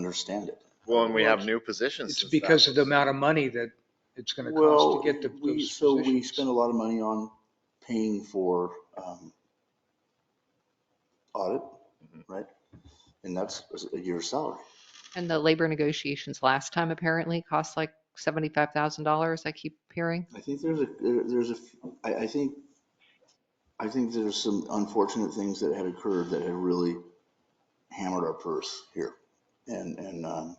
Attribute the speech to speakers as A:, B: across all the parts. A: understand it.
B: Well, and we have
A: Well,
B: new positions.
C: It's
B: since that
C: because of the
B: was-
C: amount of money that it's gonna
A: Well,
C: cost to get the,
A: we,
C: those
A: so we spend
C: positions.
A: a lot of money on paying for, um, audit, right? And that's a year's salary.
D: And the labor negotiations last time apparently cost like $75,000, I keep hearing.
A: I think there's a, there- there's a, I, I think, I think there's some unfortunate things that had occurred that had really hammered our purse here. And, and, um,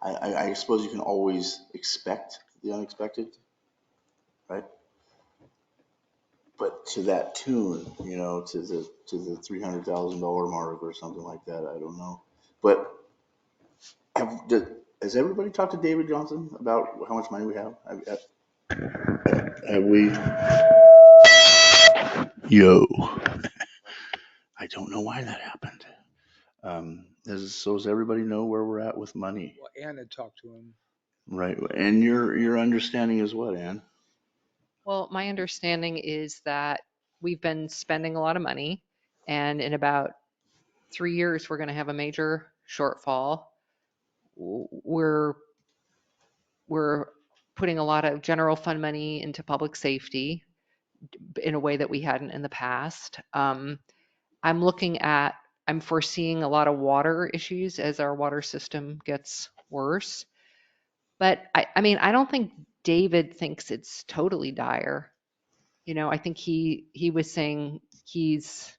A: I, I, I suppose you can always expect the unexpected, right? But to that tune, you know, to the, to the three hundred thousand dollar mark or something like that, I don't know. But have, did- has everybody talked to David Johnson about how much money we have? Have- have- have we? Yo. I don't know why that happened. Um, does, so does everybody know where we're at with money?
C: Well, Ann had talked to him.
A: Right, and your, your understanding is what, Ann?
D: Well, my understanding is that we've been spending a lot of money and in about three years, we're going to have a major shortfall. W- We're, we're putting a lot of general fund money into public safety in a way that we hadn't in the past. Um, I'm looking at, I'm foreseeing a lot of water issues as our water system gets worse. But I, I mean, I don't think David thinks it's totally dire. You know, I think he, he was saying he's,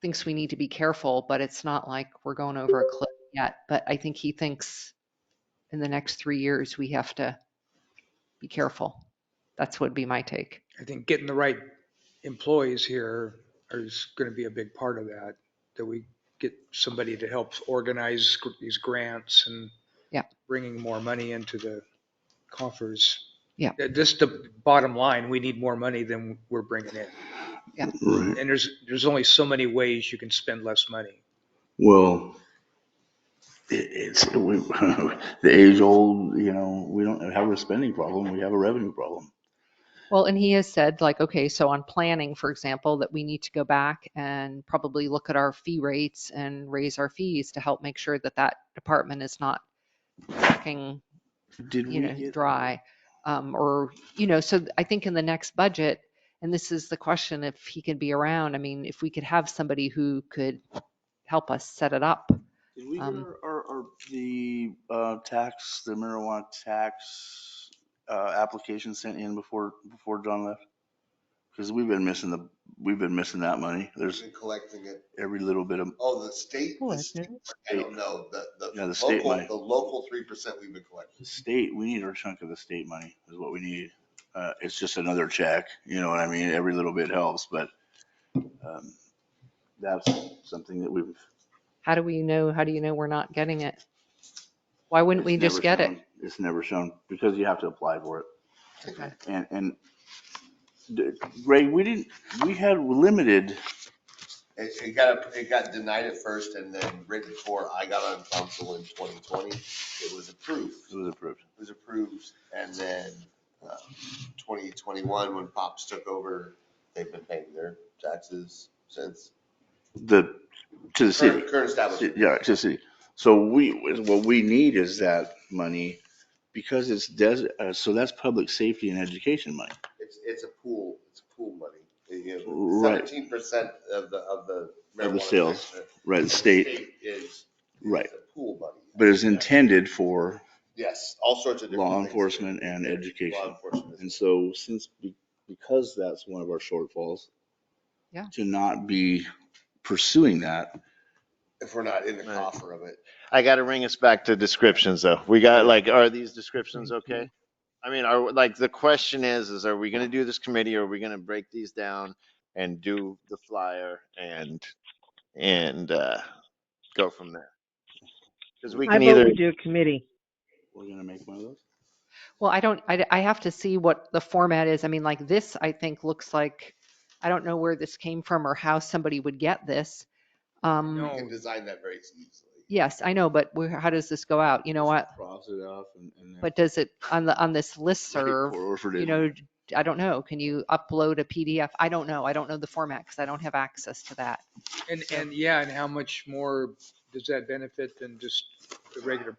D: thinks we need to be careful, but it's not like we're going over a cliff yet. But I think he thinks in the next three years, we have to be careful. That's would be my take.
C: I think getting the right employees here is gonna be a big part of that, that we get somebody to help organize gr- these grants and
D: Yeah.
C: bringing more money into the coffers.
D: Yeah.
C: Uh, Just the bottom line, we need more money than we're bringing in.
A: Right,
C: And there's, there's only so many ways you can spend less money.
A: well, it, it's, we, the age old, you know, we don't have a spending problem, we have a revenue problem.
D: Well, and he has said like, okay, so on planning, for example, that we need to go back and probably look at our fee rates and raise our fees to help make sure that that department is not lacking
A: Did we
D: you know,
A: get,
D: dry. Um, or, you know, so I think in the next budget, and this is the question, if he can be around, I mean, if we could have somebody who could help us set it up.
A: did we get
D: um,
A: our, our, our- the, uh, tax, the marijuana tax, uh, application sent in before, before John left? Cause we've been missing the, we've been missing that money, there's
E: Been collecting it.
A: every little bit of,
E: Oh, the state, the state- I don't know, the,
A: Yeah,
E: the
A: the state money.
E: local, the local three percent we've been collecting.
A: the state, we need our chunk of the state money is what we need. Uh, it's just another check, you know what I mean? Every little bit helps, but, um, that's something that we've.
D: How do we know, how do you know we're not getting it? Why wouldn't we
A: it's
D: just
A: never
D: get it?
A: shown- It's never shown because you have to apply for it.
D: Okay.
A: And, and d- Ray, we didn't, we had limited,
E: It, it got, it got denied at first and then right before I got on council in twenty twenty, it was approved.
A: it was approved.
E: It was approved and then, uh, twenty twenty-one, when Pops took over, they've been paying their taxes since.
A: The, to the city.
E: Current current establishment.
A: Yeah, to the city. So we, what we need is that money because it's des, uh, so that's public safety and education money.
E: It's, it's a pool, it's a pool money.
A: Right.
E: Seventeen percent of the, of the.
A: Of the
E: marijuana
A: sales,
E: tax, uh,
A: Right, the state,
E: Is.
A: Right.
E: is a Pool money.
A: but it's intended for
E: Yes, all sorts of. different
A: law
E: things.
A: enforcement and
E: Law
A: education.
E: enforcement.
A: And so since, be- because that's one of our shortfalls.
D: Yeah.
A: To not be pursuing that.
E: If we're not in the
B: Right.
E: coffer of it.
B: I gotta bring us back to descriptions though. We got like, are these descriptions okay? I mean, are, like, the question is, is are we gonna do this committee or are we gonna break these down and do the flyer and, and, uh, go from there? Cause we
F: I
B: can
F: vote
B: either,
F: we do a committee.
A: We're gonna make one of those?
D: Well, I don't, I, I have to see what the format is. I mean, like this, I think looks like, I don't know where this came from or how somebody would get this.
E: We
D: Um,
C: No.
E: can design that very easily.
D: yes, I know, but where, how does this go out? You know what?
A: Cross it off and, and. then-
D: But does it, on the, on this listserv,
A: Or if it
D: you
A: is-
D: know, d- I don't know, can you upload a PDF? I don't know. I don't know the format because I don't have access to that.
C: And, and yeah, and how much more does that benefit than just the regular